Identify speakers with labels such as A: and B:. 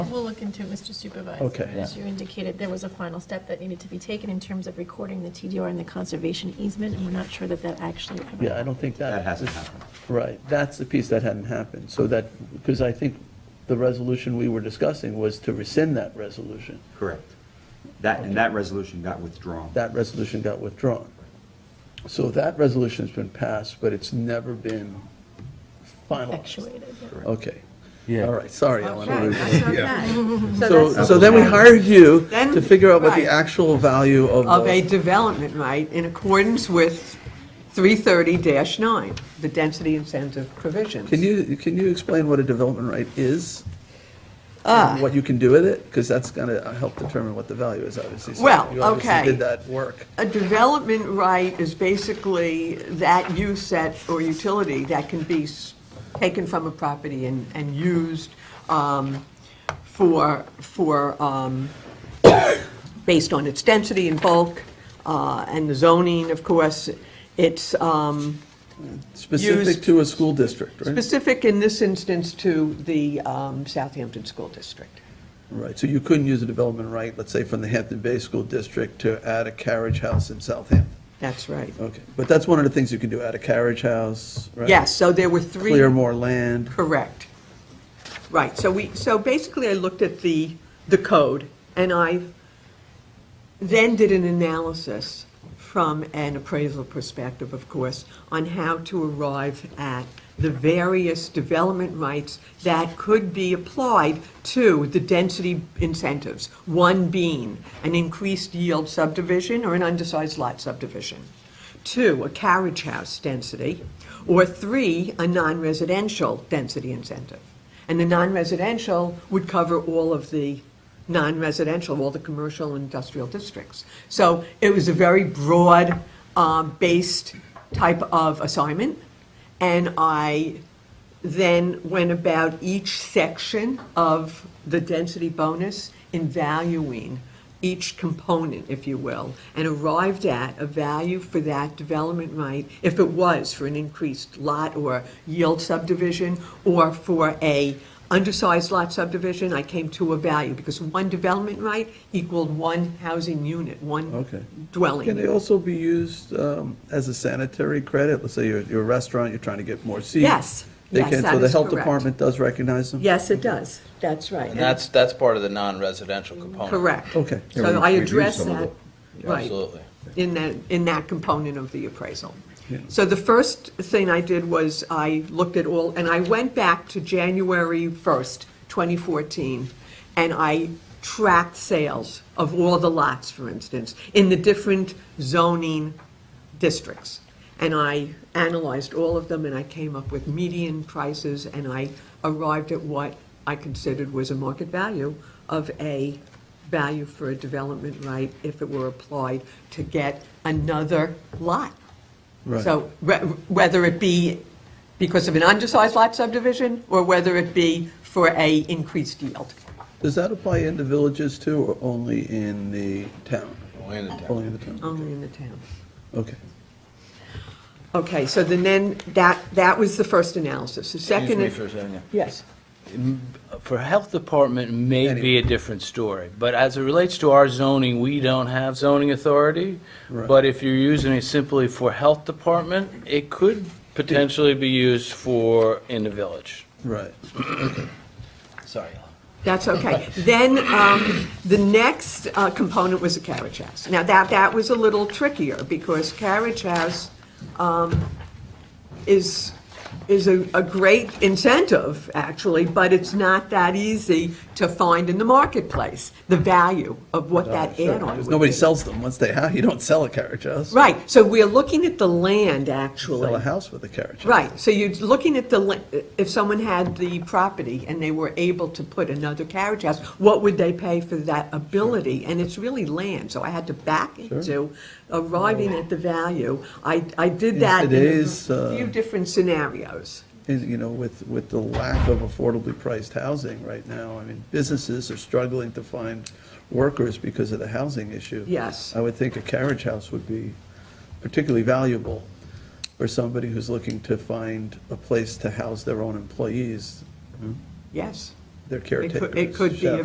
A: look into it, Mr. Supervisor.
B: Okay.
A: As you indicated, there was a final step that needed to be taken in terms of recording the TDR and the conservation easement, and we're not sure that that actually ever.
B: Yeah, I don't think that.
C: That hasn't happened.
B: Right, that's the piece that hadn't happened. So that, because I think the resolution we were discussing was to rescind that resolution.
C: Correct. That, and that resolution got withdrawn.
B: That resolution got withdrawn. So that resolution's been passed, but it's never been finalized.
A: Effectuated. yeah.
C: Correct.
B: Okay.
D: Yeah.
B: All right, sorry,
E: Okay,
B: Ellen.
E: that's okay.
B: So,
E: that's-
B: so then we hired you
E: Then-
B: to figure out what the
E: right.
B: actual value of
E: Of a
B: those-
E: development right in accordance with 330-9, the density incentive provisions.
B: Can you, can you explain what a development right is?
E: Ah.
B: And what you can do with it? Because that's going to help determine what the value is, obviously. So
E: Well,
B: You obviously
E: okay.
B: did that work.
E: A development right is basically that use that, or utility that can be s- taken from a property and, and used um, for, for, um, based on its density and bulk, uh, and the zoning, of course, it's, um,
B: Specific
E: Used-
B: to a school district, right?
E: Specific in this instance to the um, Southampton School District.
B: Right, so you couldn't use a development right, let's say, from the Hampton Bay School District to add a carriage house in Southampton.
E: That's right.
B: Okay, but that's one of the things you can do, add a carriage house, right?
E: Yes, so there were three.
B: Clear more land.
E: Correct. Right, so we, so basically I looked at the, the code and I then did an analysis from an appraisal perspective, of course, on how to arrive at the various development rights that could be applied to the density incentives. One being an increased yield subdivision or an undersized lot subdivision. Two, a carriage house density. Or three, a non-residential density incentive. And the non-residential would cover all of the non-residential, all the commercial and industrial districts. So it was a very broad, um, based type of assignment. And I then went about each section of the density bonus in valuing each component, if you will, and arrived at a value for that development right, if it was for an increased lot or yield subdivision, or for a undersized lot subdivision, I came to a value, because one development right equaled one housing unit, one
B: Okay.
E: dwelling.
B: Can they also be used um, as a sanitary credit? Let's say you're, you're a restaurant, you're trying to get more seats.
E: Yes,
B: They
E: yes,
B: can, so
E: that
B: the
E: is
B: health
E: correct.
B: department does recognize them?
E: Yes, it does, that's right.
F: And that's, that's part of the non-residential component.
E: Correct.
B: Okay.
E: So
D: Yeah, we-
E: I
D: we do
E: addressed
D: some of
E: that, right,
F: Absolutely.
E: in that, in that component of the appraisal.
B: Yeah.
E: So the first thing I did was I looked at all, and I went back to January 1st, 2014, and I tracked sales of all the lots, for instance, in the different zoning districts. And I analyzed all of them, and I came up with median prices, and I arrived at what I considered was a market value of a value for a development right if it were applied to get another lot.
B: Right.
E: So re- whether it be because of an undersized lot subdivision, or whether it be for a increased yield.
B: Does that apply in the villages too, or only in the town?
F: Only in the town.
B: Only in the town,
E: Only in the town.
B: okay.
E: Okay, so then, then, that, that was the first analysis. The
F: Excuse
E: second.
F: me for a second, yeah.
E: Yes.
D: For health department may be a different story, but as it relates to our zoning, we don't have zoning authority.
B: Right.
D: But if you're using it simply for health department, it could potentially be used for in the village.
B: Right.
D: Sorry.
E: That's okay. Then, um, the next uh, component was a carriage house. Now, that, that was a little trickier, because carriage house um, is, is a, a great incentive, actually, but it's not that easy to find in the marketplace, the value of what that
B: Sure,
E: add-on would
B: Because
E: be.
B: nobody sells them, once they, have, you don't sell a carriage house.
E: Right, so we're looking at the land, actually.
B: Sell a house with a carriage house.
E: Right, so you're looking at the, li- if someone had the property and they were able to put another carriage house, what would they pay for that ability? And it's really land, so I had to back into arriving at the value. I, I did
B: Oh. In
E: that in a
B: today's, uh,
E: few different scenarios.
B: And, you know, with, with the lack of affordably priced housing right now, I mean, businesses are struggling to find workers because of the housing issue.
E: Yes.
B: I would think a carriage house would be particularly valuable for somebody who's looking to find a place to house their own employees,
E: Yes,
B: their caretakers.
E: it could be a
B: chefs.